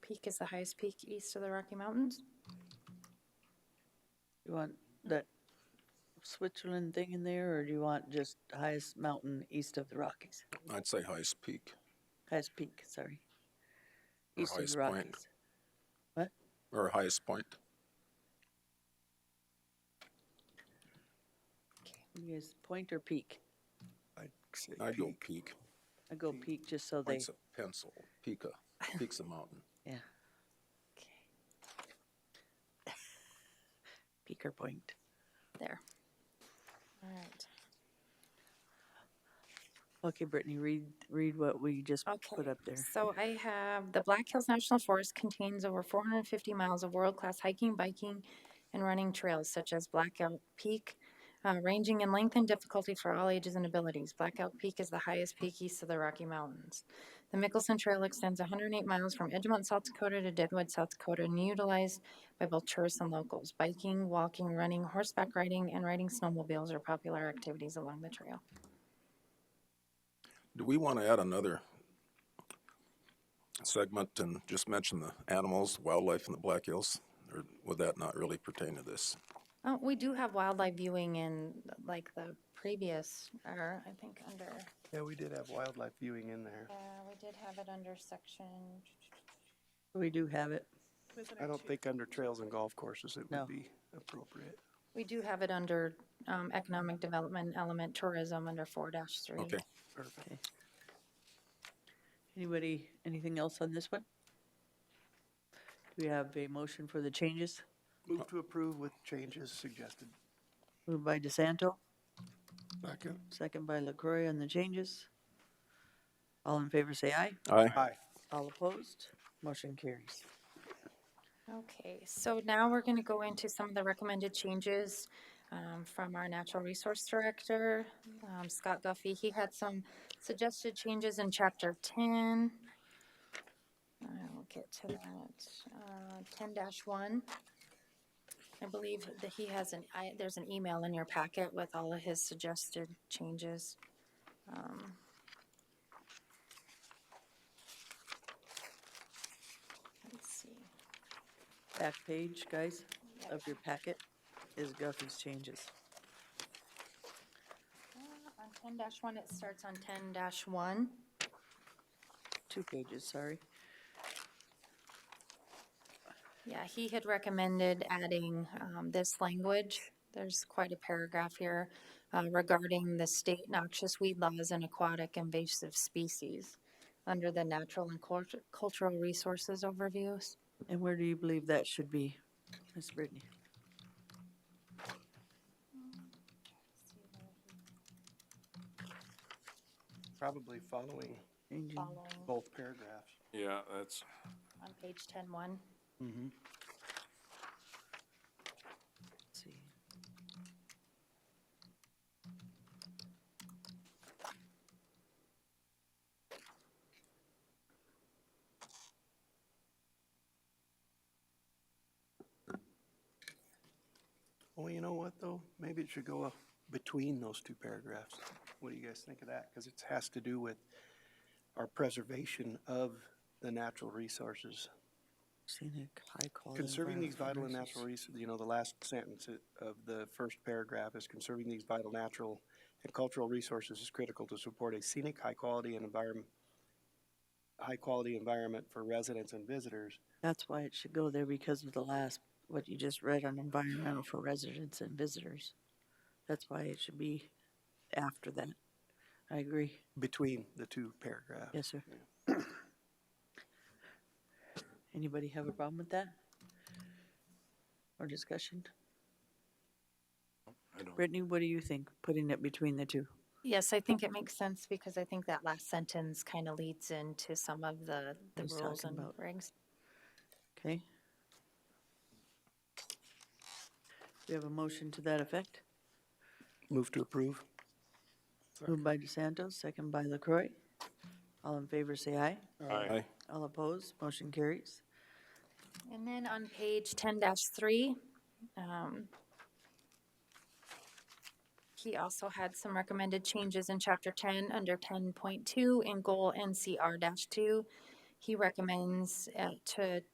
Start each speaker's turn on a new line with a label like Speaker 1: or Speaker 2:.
Speaker 1: Peak is the highest peak east of the Rocky Mountains.
Speaker 2: You want that Switzerland thing in there, or do you want just highest mountain east of the Rockies?
Speaker 3: I'd say highest peak
Speaker 2: Highest peak, sorry.
Speaker 3: Or
Speaker 2: East of
Speaker 3: highest
Speaker 2: the
Speaker 3: point.
Speaker 2: Rockies.
Speaker 3: or highest point.
Speaker 2: You guys, point or peak?
Speaker 3: I'd go peak.
Speaker 2: I go peak just so they,
Speaker 3: Point's a pencil. Peak a, peak's a mountain.
Speaker 2: yeah. Peak or point?
Speaker 1: There. All right.
Speaker 2: Okay, Brittany, read, read what we just put
Speaker 1: Okay,
Speaker 2: up there.
Speaker 1: So I have, the Black Hills National Forest contains over four hundred and fifty miles of world-class hiking, biking, and running trails such as Blackout Peak, uh, ranging in length and difficulty for all ages and abilities. Blackout Peak is the highest peak east of the Rocky Mountains. The Mickelson Trail extends hundred and eight miles from Edgemont, South Dakota to Deadwood, South Dakota, and utilized by both tourists and locals. Biking, walking, running, horseback riding, and riding snowmobiles are popular activities along the trail.
Speaker 3: Do we want to add another segment and just mention the animals, wildlife in the Black Hills? Or would that not really pertain to this?
Speaker 1: Oh, we do have wildlife viewing in like the previous, or I think under,
Speaker 4: Yeah, we did have wildlife viewing in there.
Speaker 1: yeah, we did have it under section.
Speaker 2: We do have it.
Speaker 4: I don't think under trails and golf courses it
Speaker 2: No.
Speaker 4: would be appropriate.
Speaker 1: We do have it under um, economic development element tourism under four dash three.
Speaker 3: Okay,
Speaker 4: Perfect.
Speaker 2: Anybody, anything else on this one? Do we have a motion for the changes?
Speaker 4: Move to approve with changes suggested.
Speaker 2: Moved by DeSanto,
Speaker 3: Second.
Speaker 2: second by LaCroy on the changes. All in favor, say aye.
Speaker 3: Aye.
Speaker 4: Aye.
Speaker 2: All opposed, motion carries.
Speaker 1: Okay, so now we're gonna go into some of the recommended changes um, from our Natural Resource Director, um, Scott Guffey. He had some suggested changes in chapter ten. I'll get to that, uh, ten one. I believe that he has an, I, there's an email in your packet with all of his suggested changes. Um, Let's see.
Speaker 2: Back page, guys,
Speaker 1: Yep.
Speaker 2: of your packet is Guffey's changes.
Speaker 1: On ten one, it starts on ten one.
Speaker 2: Two pages, sorry.
Speaker 1: Yeah, he had recommended adding, um, this language. There's quite a paragraph here, uh, regarding the state noxious weed laws and aquatic invasive species under the natural and cultu- cultural resources overviews.
Speaker 2: And where do you believe that should be, Miss Brittany?
Speaker 4: Probably following
Speaker 2: Changing-
Speaker 1: Following
Speaker 4: both paragraphs.
Speaker 5: Yeah, that's,
Speaker 1: on page ten one.
Speaker 2: let's see.
Speaker 4: Well, you know what, though? Maybe it should go up between those two paragraphs. What do you guys think of that? Because it has to do with our preservation of the natural resources.
Speaker 2: Scenic, high quality.
Speaker 4: Conserving these vital
Speaker 2: environmental
Speaker 4: and
Speaker 2: resources.
Speaker 4: natural resources, you know, the last sentence i- of the first paragraph is conserving these vital natural and cultural resources is critical to support a scenic, high-quality and environment, high-quality environment for residents and visitors.
Speaker 2: That's why it should go there because of the last, what you just read on environmental for residents and visitors. That's why it should be after that. I agree.
Speaker 4: Between the two paragraphs.
Speaker 2: Yes, sir. Anybody have a problem with that? Or discussion?
Speaker 5: I don't,
Speaker 2: Brittany, what do you think, putting it between the two?
Speaker 1: Yes, I think it makes sense because I think that last sentence kind of leads into some of the, the
Speaker 2: He's
Speaker 1: rules and
Speaker 2: talking about-
Speaker 1: regs.
Speaker 2: Okay? We have a motion to that effect,
Speaker 4: Move to approve?
Speaker 2: moved by DeSanto, second by LaCroy. All in favor, say aye.
Speaker 5: I,
Speaker 3: Aye.
Speaker 2: All opposed, motion carries.
Speaker 1: And then on page ten three, um, he also had some recommended changes in chapter ten under ten point two in goal NCR two. He recommends uh, to